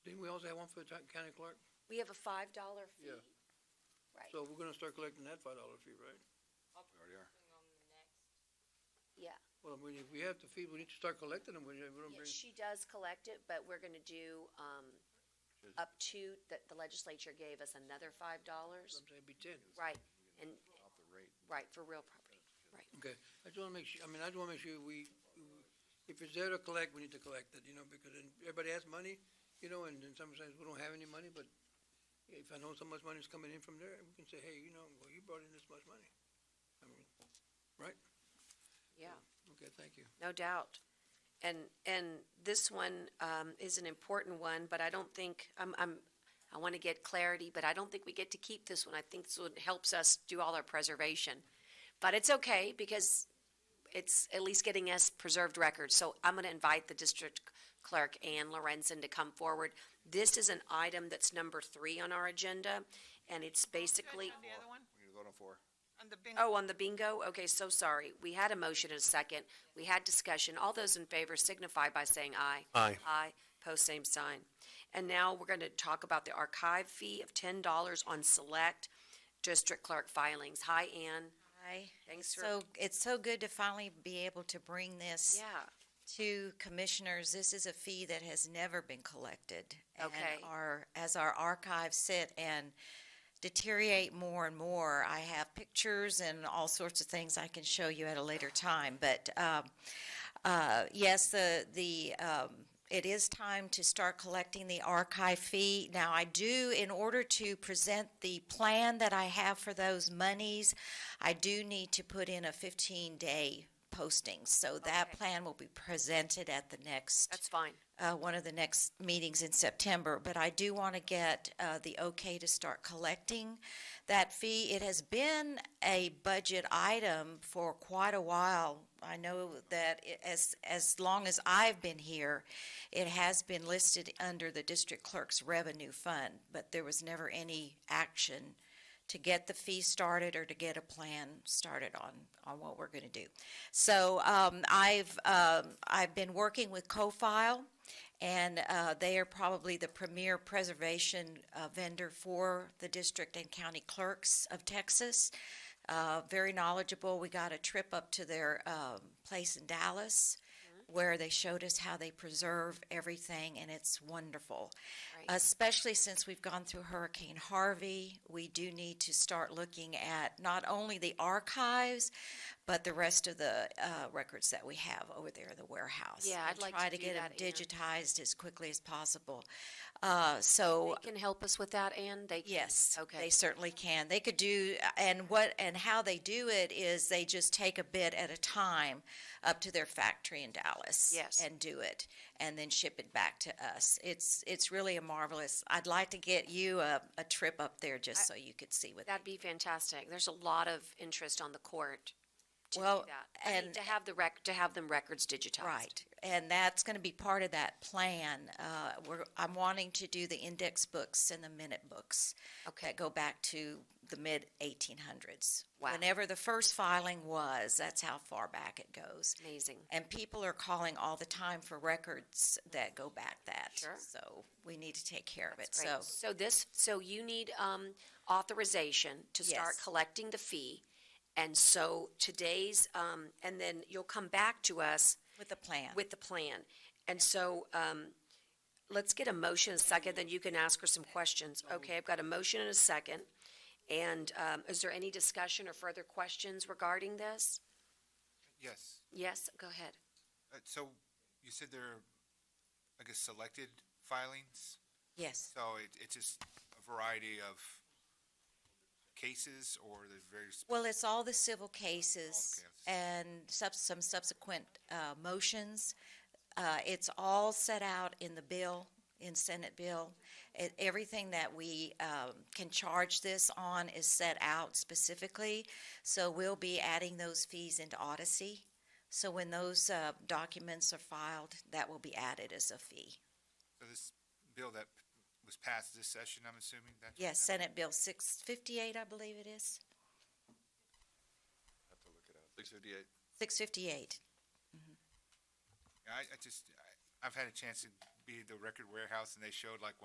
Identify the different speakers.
Speaker 1: also have one for the town- county clerk?
Speaker 2: We have a five dollar fee.
Speaker 1: Yeah.
Speaker 2: Right,
Speaker 1: So we're gonna start collecting that five dollar fee, right?
Speaker 3: We already are.
Speaker 4: On the next,
Speaker 2: yeah.
Speaker 1: Well, we, if we have to feed, we need to start collecting them, we we don't
Speaker 2: Yeah,
Speaker 1: bring,
Speaker 2: She does collect it, but we're gonna do, um,
Speaker 3: Just-
Speaker 2: up to, that the legislature gave us another five dollars.
Speaker 1: I'm saying be ten.
Speaker 2: Right, and,
Speaker 3: Off the rate.
Speaker 2: right, for real property.
Speaker 1: I just wanna make sure, I mean, I just wanna make sure we, if it's there to collect, we need to collect it, you know, because then everybody has money, you know, and then sometimes we don't have any money, but if I know so much money's coming in from there, we can say, hey, you know, well, you brought in this much money. I mean,
Speaker 2: Yeah,
Speaker 1: okay, thank you.
Speaker 2: no doubt. And, and this one, um, is an important one, but I don't think, I'm, I'm, I wanna get clarity, but I don't think we get to keep this one. I think this one helps us do all our preservation. But it's okay, because it's at least getting us preserved records. So I'm going to invite the district clerk, Ann Lorenzen, to come forward. This is an item that's number three on our agenda, and it's basically,
Speaker 4: On the other one,
Speaker 3: We need to vote on four.
Speaker 4: on the bingo.
Speaker 2: oh, on the bingo? Okay, so sorry. We had a motion and a second. We had discussion. All those in favor signify by saying aye.
Speaker 5: Aye.
Speaker 2: Aye, post same sign. And now we're going to talk about the archive fee of $10 on select district clerk filings. Hi, Ann.
Speaker 6: Hi.
Speaker 2: Thanks for,
Speaker 6: So it's so good to finally be able to bring this
Speaker 2: yeah.
Speaker 6: to commissioners. This is a fee that has never been collected.
Speaker 2: Okay.
Speaker 6: And our, as our archives sit and deteriorate more and more, I have pictures and all sorts of things I can show you at a later time. But, um, uh, yes, the, the, um, it is time to start collecting the archive fee. Now, I do, in order to present the plan that I have for those monies, I do need to put in a 15-day posting. So that
Speaker 2: Okay.
Speaker 6: plan will be presented at the next,
Speaker 2: That's fine.
Speaker 6: uh, one of the next meetings in September. But I do want to get uh, the okay to start collecting that fee. It has been a budget item for quite a while. I know that it- as, as long as I've been here, it has been listed under the district clerk's revenue fund, but there was never any action to get the fee started or to get a plan started on, on what we're going to do. So um, I've, um, I've been working with CoFile, and uh, they are probably the premier preservation uh, vendor for the district and county clerks of Texas. Uh, Very knowledgeable. We got a trip up to their um, place in Dallas, where they showed us how they preserve everything, and it's wonderful Uh,
Speaker 2: Right.
Speaker 6: especially since we've gone through Hurricane Harvey, we do need to start looking at not only the archives, but the rest of the uh, records that we have over there in the warehouse.
Speaker 2: Yeah, I'd
Speaker 6: And
Speaker 2: like to do
Speaker 6: Try
Speaker 2: that,
Speaker 6: to
Speaker 2: Ann.
Speaker 6: get them digitized as quickly as possible. Uh, So,
Speaker 2: They can help us with that, Ann? They can?
Speaker 6: Yes.
Speaker 2: Okay.
Speaker 6: They certainly can. They could do, and what, and how they do it is they just take a bit at a time up to their factory in Dallas.
Speaker 2: Yes.
Speaker 6: And do it, and then ship it back to us. It's, it's really a marvelous, I'd like to get you a, a trip up there just so you could see what.
Speaker 2: That'd be fantastic. There's a lot of interest on the court to do
Speaker 6: Well,
Speaker 2: that. I mean,
Speaker 6: and-
Speaker 2: to have the rec, to have them records digitized.
Speaker 6: Right, and that's going to be part of that plan. Uh, We're, I'm wanting to do the index books and the minute books.
Speaker 2: Okay,
Speaker 6: that go back to the mid 1800s.
Speaker 2: Wow.
Speaker 6: Whenever the first filing was, that's how far back it goes.
Speaker 2: amazing.
Speaker 6: And people are calling all the time for records that go back that.
Speaker 2: Sure.
Speaker 6: So we need to take care of it.
Speaker 2: That's
Speaker 6: So
Speaker 2: great. So this, so you need um, authorization to start
Speaker 6: Yes.
Speaker 2: collecting the fee. And so today's, um, and then you'll come back to us
Speaker 6: with the plan.
Speaker 2: with the plan. And so um, let's get a motion, a second, then you can ask her some questions. Okay, I've got a motion and a second. And um, is there any discussion or further questions regarding this?
Speaker 7: Yes.
Speaker 2: Yes, go ahead.
Speaker 7: Uh, So you said there are, I guess, selected filings?
Speaker 6: yes.
Speaker 7: So it, it's just a variety of cases or there's various,
Speaker 6: Well, it's all the civil cases
Speaker 7: All the cases.
Speaker 6: and sub- some subsequent uh, motions. Uh, It's all set out in the bill, in Senate bill. It- Everything that we um, can charge this on is set out specifically. So we'll be adding those fees into Odyssey. So when those uh, documents are filed, that will be added as a fee.
Speaker 7: so this bill that was passed this session, I'm assuming? that's-
Speaker 6: Yes, Senate Bill 658, I believe it is,
Speaker 3: Have to look it up. Six fifty-eight.
Speaker 6: 658.
Speaker 7: I, I just, I- I've had a chance to be at the record warehouse and they showed like